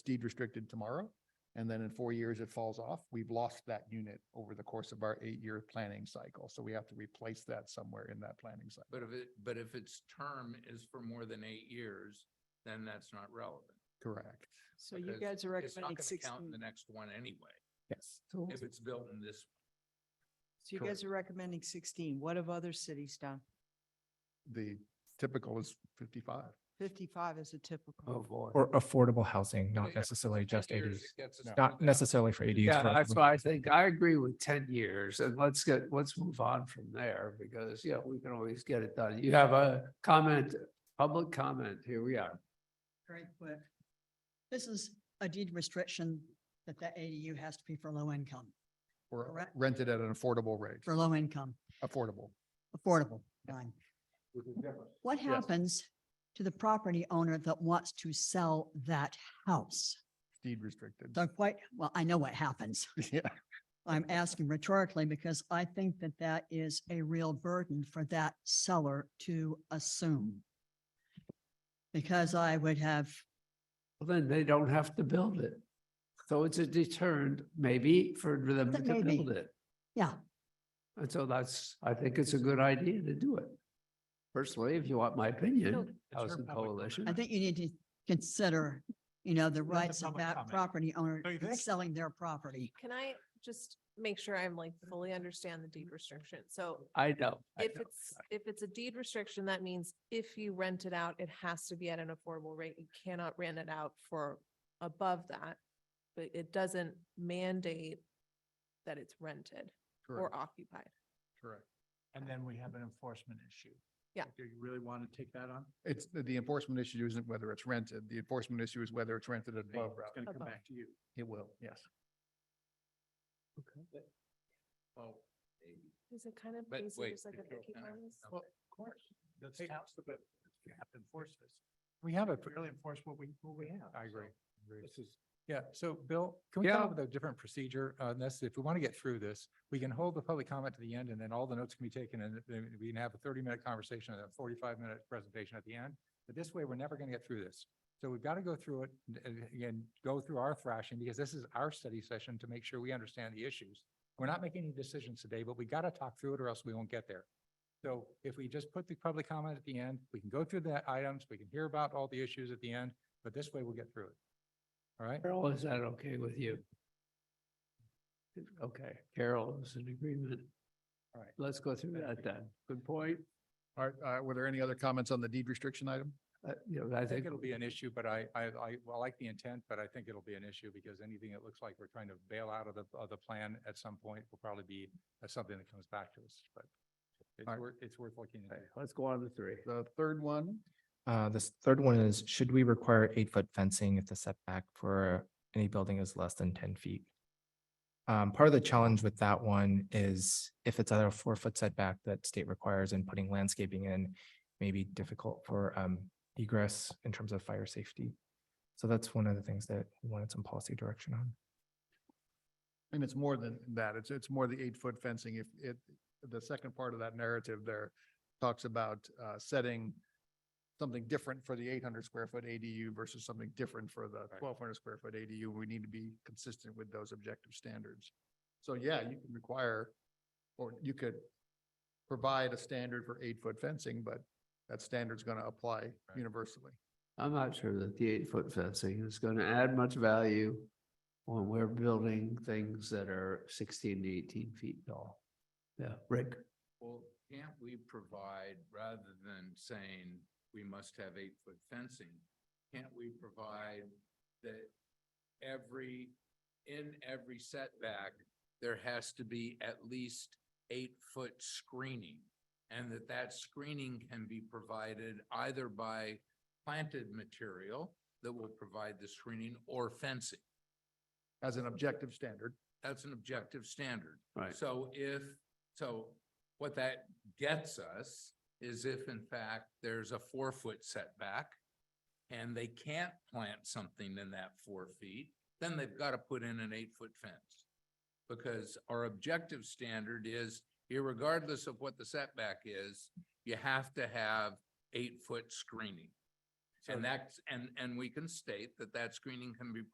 deed restricted tomorrow. And then in four years, it falls off. We've lost that unit over the course of our eight-year planning cycle. So we have to replace that somewhere in that planning cycle. But if it, but if its term is for more than eight years, then that's not relevant. Correct. So you because guys are It's not recommending gonna count in the sixteen, next one anyway, Yes. So if it's built in this. so you guys are recommending sixteen. What have other cities done? the typical is fifty-five. Fifty-five is a Oh, Oh. typical. Or affordable housing, Yeah, not necessarily just 10 years, ADUs, it gets us No. to not that. necessarily for ADUs. Yeah, for that's everyone. why I think I agree with ten years and let's get, let's move on from there because, yeah, we can always get it done. You have a comment, public comment. Here we are. Great work. This is a deed restriction that that ADU has to be for low income, Or Correct. rented at an affordable rate, for low income, affordable. affordable. fine. What Yes. happens to the property owner that wants to sell that house? deed restricted. So quite, well, I know what happens. Yeah, I'm Mm-hmm. asking rhetorically because I think that that is a real burden for that seller to assume. Because I would have Well, Then they don't have to build it. So it's a deterrent maybe for them That to may be. build it. Yeah. And so that's, I think it's a good idea to do it. Personally, if you want my opinion, her Housing public Coalition. I think you need to consider, you know, the rights of public that comment. property owner Don't you in think? selling their property. Can I just make sure I'm like fully understand the deed restriction? So I know. I if know. it's, if it's a deed restriction, that means if you rent it out, it has to be at an affordable rate. You cannot rent it out for above that. But it doesn't mandate that it's rented or correct, occupied. correct. And then we have an enforcement issue. Yeah. Do you really want to take that on? It's, the enforcement issue isn't whether it's rented. The enforcement issue is whether it's rented at above. It's going to come Above. back to you. It will, yes. Well, maybe. Is it kind of But basically wait. just like if a you're Mickey gonna- Mouse? okay. Well, of course, that's council, but you have to enforce this. We have a, We really enforce what we, what we have. I so agree. This is, Yeah, so Bill, can we come Yeah. up with a different procedure on this? If we want to get through this, we can hold the public comment to the end and then all the notes can be taken and then we can have a thirty minute conversation and a forty five minute presentation at the end. But this way, we're never going to get through this. So we've got to go through it and- and again, go through our thrashing because this is our study session to make sure we understand the issues. We're not making any decisions today, but we got to talk through it or else we won't get there. So if we just put the public comment at the end, we can go through the items, we can hear about all the issues at the end, but this way we'll get through it. All right? Carol, is that okay with you? Okay, Carol is in agreement. All right, let's go through that then. Good point. All right, uh, were there any other comments on the deed restriction item? Uh, you know, I I think think it'll be an issue, but I, I, I, well, I like the intent, but I think it'll be an issue because anything that looks like we're trying to bail out of the, of the plan at some point will probably be uh, something that comes back to us, but it's Alright. worth, it's worth looking Okay, into. Let's go on to three. The third one, Uh, this third one is, should we require eight foot fencing if the setback for any building is less than ten feet? Um, part of the challenge with that one is if it's at a four foot setback that state requires and putting landscaping in may be difficult for, um, egress in terms of fire safety. So that's one of the things that we wanted some policy direction on. and it's more than that. It's, it's more the eight-foot fencing. If it, the second part of that narrative there talks about uh, setting something different for the eight hundred square foot ADU versus something different for the twelve hundred square foot ADU. We need to be consistent with those objective standards. So yeah, you can require, or you could provide a standard for eight foot fencing, but that standard's going to apply universally. I'm not sure that the eight foot fencing is going to add much value when we're building things that are sixteen to eighteen feet tall. Yeah, Rick, Well, can't we provide, rather than saying we must have eight-foot fencing, can't we provide that every, in every setback, there has to be at least eight-foot screening? And that that screening can be provided either by planted material that will provide the screening or fencing? as an objective standard. That's an objective standard. right. So if, so what that gets us is if in fact there's a four foot setback and they can't plant something in that four feet, then they've got to put in an eight foot fence. Because our objective standard is, irregardless of what the setback is, you have to have eight foot screening. And that's, and, and we can state that that screening can be